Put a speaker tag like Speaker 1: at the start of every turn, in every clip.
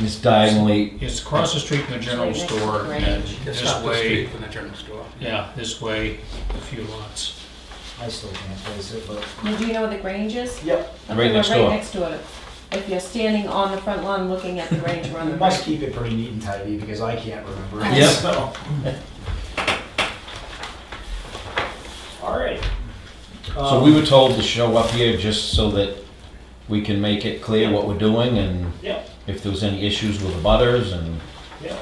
Speaker 1: It's diagonally,
Speaker 2: It's across the street from the general
Speaker 3: Right next to
Speaker 2: store,
Speaker 3: the
Speaker 2: and
Speaker 3: range.
Speaker 4: Just
Speaker 2: this
Speaker 4: up the
Speaker 2: way,
Speaker 4: street from the general store.
Speaker 2: yeah, this way, a few lots.
Speaker 5: I still can't place it, but.
Speaker 3: Now, do you know where the Grange is?
Speaker 5: Yep.
Speaker 3: Okay,
Speaker 1: Right next
Speaker 3: we're
Speaker 1: door.
Speaker 3: Right next to it. If you're standing on the front lawn looking at the Grange, we're on
Speaker 5: We
Speaker 3: the
Speaker 5: must
Speaker 3: right.
Speaker 5: keep it pretty neat and tidy because I can't remember
Speaker 1: Yep.
Speaker 5: it, so. All right.
Speaker 1: so we were told to show up here just so that we can make it clear what we're doing and
Speaker 5: Yep,
Speaker 1: if there was any issues with the butters and,
Speaker 5: yep. Um,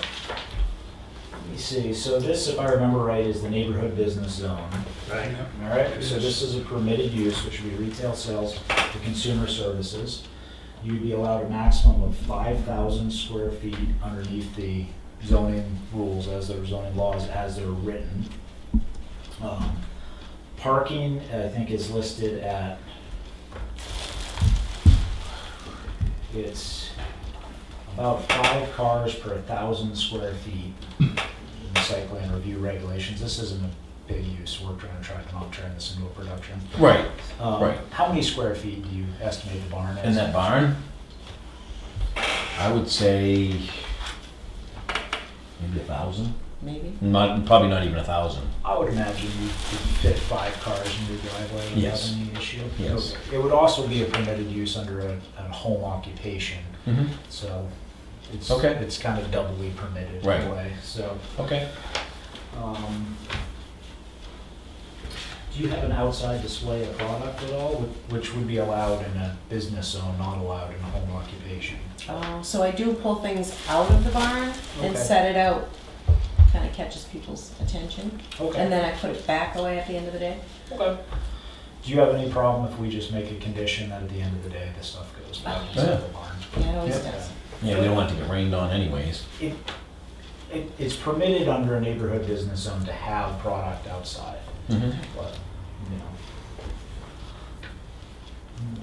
Speaker 5: Let me see, so this, if I remember right, is the neighborhood business zone.
Speaker 4: Right.
Speaker 5: All right, so this is a permitted use, which would be retail sales to consumer services. You'd be allowed a maximum of five thousand square feet underneath the zoning rules as their zoning laws as they're written. Um, Parking, I think, is listed at it's about five cars per thousand square feet in the site plan review regulations. This isn't a big use, we're trying to try to not turn this into a production.
Speaker 1: right,
Speaker 5: Um,
Speaker 1: Right.
Speaker 5: How many square feet do you estimate the barn is?
Speaker 1: in that barn. I would say maybe a thousand,
Speaker 3: Maybe.
Speaker 1: not, probably not even a thousand.
Speaker 5: I would imagine you could fit five cars in your driveway without
Speaker 1: Yes.
Speaker 5: any issue.
Speaker 1: Yes.
Speaker 5: It would also be a permitted use under a, a home occupation,
Speaker 1: Mm-hmm.
Speaker 5: so it's
Speaker 1: Okay.
Speaker 5: it's kind of doubly permitted in
Speaker 1: Right.
Speaker 5: a way. So,
Speaker 1: Okay.
Speaker 5: um, do you have an outside display of product at all, whi- which would be allowed in a business zone, not allowed in a home occupation?
Speaker 3: Uh, So I do pull things out of the barn and
Speaker 5: Okay.
Speaker 3: set it out, kind of catches people's attention.
Speaker 5: Okay.
Speaker 3: And then I put it back away at the end of the day.
Speaker 5: Okay. Do you have any problem if we just make a condition that at the end of the day, this stuff goes back
Speaker 3: Oh,
Speaker 1: yeah.
Speaker 5: inside the barn?
Speaker 3: Yeah, it always
Speaker 5: Yeah.
Speaker 3: does.
Speaker 1: Yeah, we don't want it to get rained on anyways.
Speaker 5: It, it, it's permitted under a neighborhood business zone to have product outside,
Speaker 1: Mhm.
Speaker 5: but, you know. Hmm.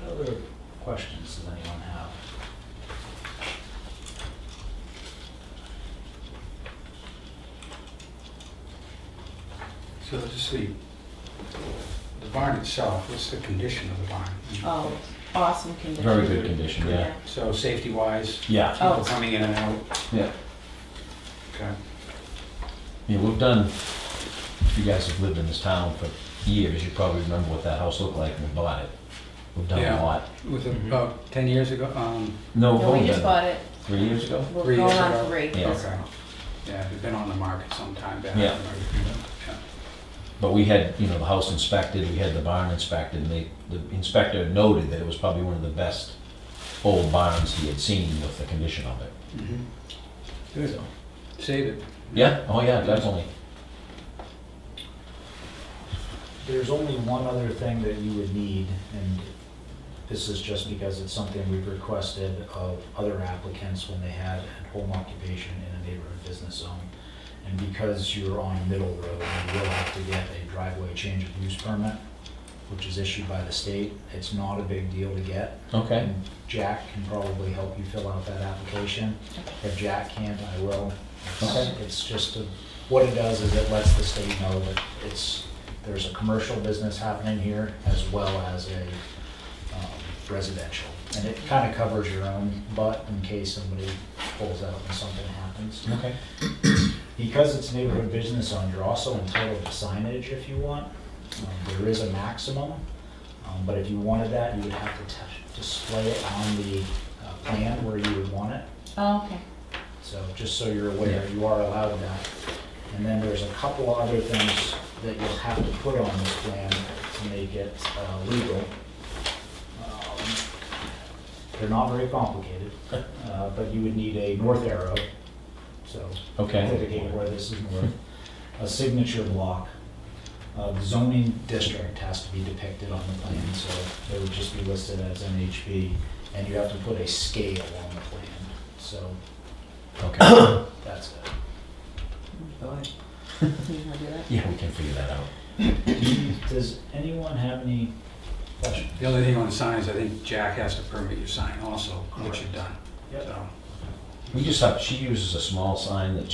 Speaker 5: What other questions does anyone have?
Speaker 4: So let's see, the barn itself, what's the condition of the barn?
Speaker 3: Oh, awesome condition.
Speaker 1: Very good condition, yeah.
Speaker 4: So safety-wise,
Speaker 1: Yeah,
Speaker 4: people
Speaker 3: Oh.
Speaker 4: coming in and out,
Speaker 1: yeah.
Speaker 4: okay?
Speaker 1: Yeah, we've done, if you guys have lived in this town for years, you probably remember what that house looked like when we bought it. We've done a
Speaker 4: Yeah.
Speaker 1: lot.
Speaker 4: Was
Speaker 2: Mm-hmm.
Speaker 4: it about 10 years ago? Um,
Speaker 1: No, we've
Speaker 3: No, we
Speaker 1: only
Speaker 3: just
Speaker 1: done
Speaker 3: bought it.
Speaker 1: three years ago?
Speaker 3: We're
Speaker 4: Three
Speaker 3: going
Speaker 4: years
Speaker 3: on
Speaker 4: ago.
Speaker 3: three.
Speaker 1: Yeah.
Speaker 3: That's
Speaker 4: Okay. Yeah, we've been on the market some time back.
Speaker 1: Yeah.
Speaker 4: Yeah.
Speaker 1: But we had, you know, the house inspected, we had the barn inspected, and they, the inspector noted that it was probably one of the best old barns he had seen with the condition of it.
Speaker 2: Mm-hmm.
Speaker 4: Mhm. Good. Save it.
Speaker 1: Yeah, oh yeah, definitely.
Speaker 5: There's only one other thing that you would need, and this is just because it's something we've requested of other applicants when they had a home occupation in a neighborhood business zone. And because you're on Middle Road, you will have to get a driveway change of use permit, which is issued by the state. It's not a big deal to get.
Speaker 1: Okay,
Speaker 5: And Jack can probably help you fill out that application. If Jack can't, I will. It's-
Speaker 1: Okay.
Speaker 5: It's just, a- what it does is it lets the state know that it's, there's a commercial business happening here as well as a um, residential. And it kind of covers your own butt in case somebody pulls out and something happens.
Speaker 1: okay.
Speaker 5: Because it's neighborhood business zone, you're also entitled to signage if you want. Um, There is a maximum, um, but if you wanted that, you would have to t- display it on the uh, plan where you would want it.
Speaker 3: Oh, okay.
Speaker 5: So just so you're aware, you are allowed that. And then there's a couple other things that you'll have to put on this plan to make it uh, legal. Um, They're not very complicated, uh, but you would need a north arrow, so
Speaker 1: Okay.
Speaker 5: indicate where this is north, a signature block. Uh, the Zoning district has to be depicted on the plan, so it would just be listed as NHB, and you have to put a scale on the plan, so
Speaker 1: Okay,
Speaker 5: that's it.
Speaker 3: You wanna do that?
Speaker 1: yeah, we can figure that out.
Speaker 5: Does anyone have any questions?
Speaker 4: The only thing on the signs, I think Jack has to permit your sign also, which you've done, so.
Speaker 1: We just have, she uses a small sign that